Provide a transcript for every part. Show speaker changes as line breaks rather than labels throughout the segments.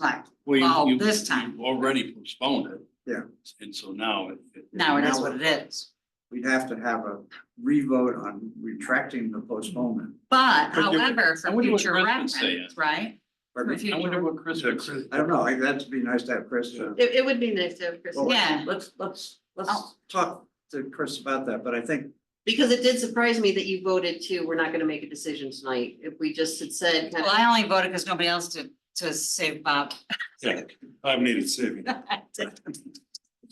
Right,
Well,
Well,
you- you-
this time.
you Already postponed it.
Yeah.
And so now it. it-
now it is what it is.
We'd have to have a revote on retracting the postponement.
But
But you-
however,
I
for
wonder what
future
Chris would say.
reference, right?
Pardon
For
me?
I wonder
future-
what Chris would say.
I don't know, I- that'd be nice to have Chris. uh,
It, it would be nice to have Chris,
well,
Yeah.
Let's, let's,
Oh.
let's talk to Chris about that, but I think,
because it did surprise me that you voted to, we're not gonna make a decision tonight. If we just had said, kind
Well,
of,
I only voted because nobody else did to save Bob.
I've needed saving.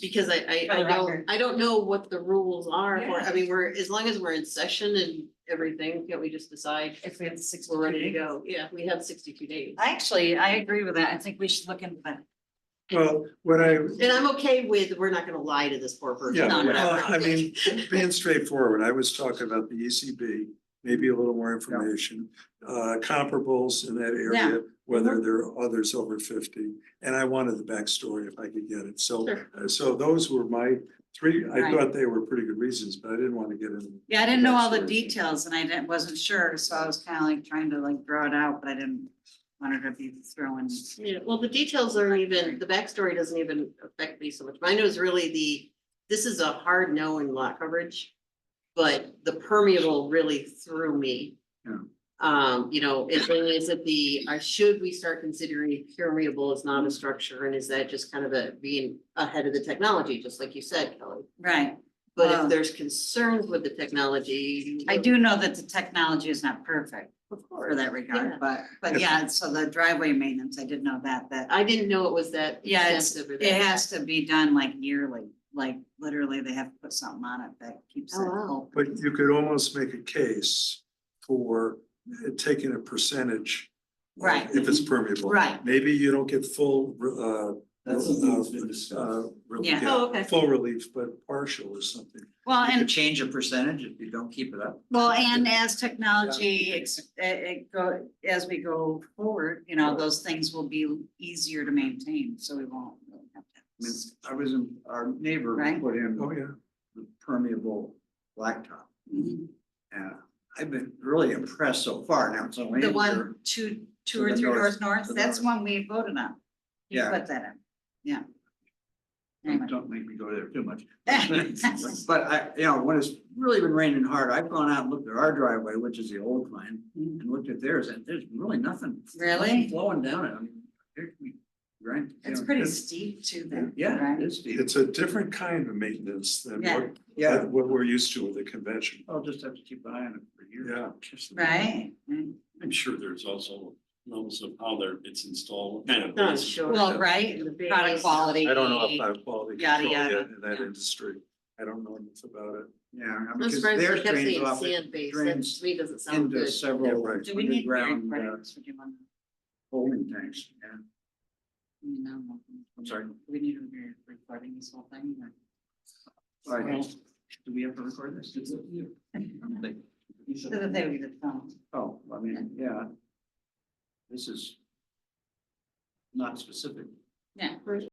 because I, I,
For
I
the record.
don't, I don't know what the rules are. for-
Yeah.
I mean, we're, as long as we're in session and everything, can't we just decide
If we had six.
we're ready to go? Yeah, we have sixty-two days.
Actually, I agree with that. I think we should look into that.
Well, what I,
And I'm okay with, we're not gonna lie to this poor person.
yeah,
No, no,
well,
no.
I mean, being straightforward, I was talking about the ECB, maybe a little more information. Uh, comparables in
Yeah.
that
Mm-hmm.
area, whether there are others over fifty, and I wanted the backstory if I could get it, so.
Sure.
uh, So those were my three, I
Right.
thought they were pretty good reasons, but I didn't want to get in.
Yeah, I didn't know all the
That's-
details and I didn't, wasn't sure, so I was kind of like trying to like draw it out, but I didn't want it to be thrown.
Yeah, well, the details aren't even, the backstory doesn't even affect me so much. Mine was really the, this is a hard no in lot coverage. But the permeable really threw me.
Yeah.
Um, you know, it really is that the, uh, should we start considering permeable as not a structure and is that just kind of a being ahead of the technology, just like you said, Kelly?
Right.
But
Wow.
if there's concerns with the technology.
Um, I do know that the technology is not perfect
Of course.
for that
Yeah.
regard, but, but
Yes.
yeah, so the driveway maintenance, I did know that, that
I didn't know it was that.
Yeah, it's,
extensive or
it
that-
has to be done like yearly, like literally they have to put something on it that keeps it
Oh, wow.
whole.
But you could almost make a case for uh, taking a percentage. uh,
Right. Mm-hmm.
If it's permeable.
Right.
Maybe you don't get full, uh.
That's something that's been discussed.
uh, re-
Yeah.
Oh, okay.
Full relief, but partial or something.
Well,
you could
and,
change a percentage if you don't keep it up.
well, and as technology, ex- it, it go, as we go forward, you know, those things will be easier to maintain, so we won't. really have
I mean,
to.
I was in, our neighbor
Right.
put in
Oh, yeah.
the permeable blacktop. Mm-hmm.
Mhm.
And I've been really impressed so far. Now it's only.
The one, two, two
to
or
the
three
north,
doors
to
north,
the
that's
north.
one we voted on. You
Yeah. Mm-hmm.
Put that in, yeah. Anyway.
Don't make me go there too much. But I, you know, when it's really been raining hard, I've gone out and looked at our driveway, which is the old line,
Mhm.
and looked at theirs, and there's really nothing.
Really?
nothing Flowing down it, I mean, there can be, right? you
It's
know,
pretty steep too then.
Yeah,
right?
it is steep.
It's a different kind of maintenance than
Yeah.
what,
Yeah,
than what we're used to with the convention.
I'll just have to keep an eye on it for years.
Yeah.
Right, right.
I'm sure there's also levels of how they're, it's installed.
No, sure.
Well, right,
The base.
product quality.
I don't know about quality
Yada,
control yet
yada,
in that
yeah.
industry. I don't know enough about it.
Yeah,
I'm
because
surprised
theirs
they kept
drains
saying
off it
sand base, that
drains
to me doesn't sound
into
good.
several
Yeah, right.
Do we need hearing
underground uh,
credits? Would you want to-
holding tanks, yeah.
I mean, I don't know.
I'm sorry.
Do We need to be recording this whole thing. or-
All right,
So
do we have to record this? It's up to you. I don't think- you should-
that they would get the phone.
Oh, I mean, yeah. This is not specific.
Yeah.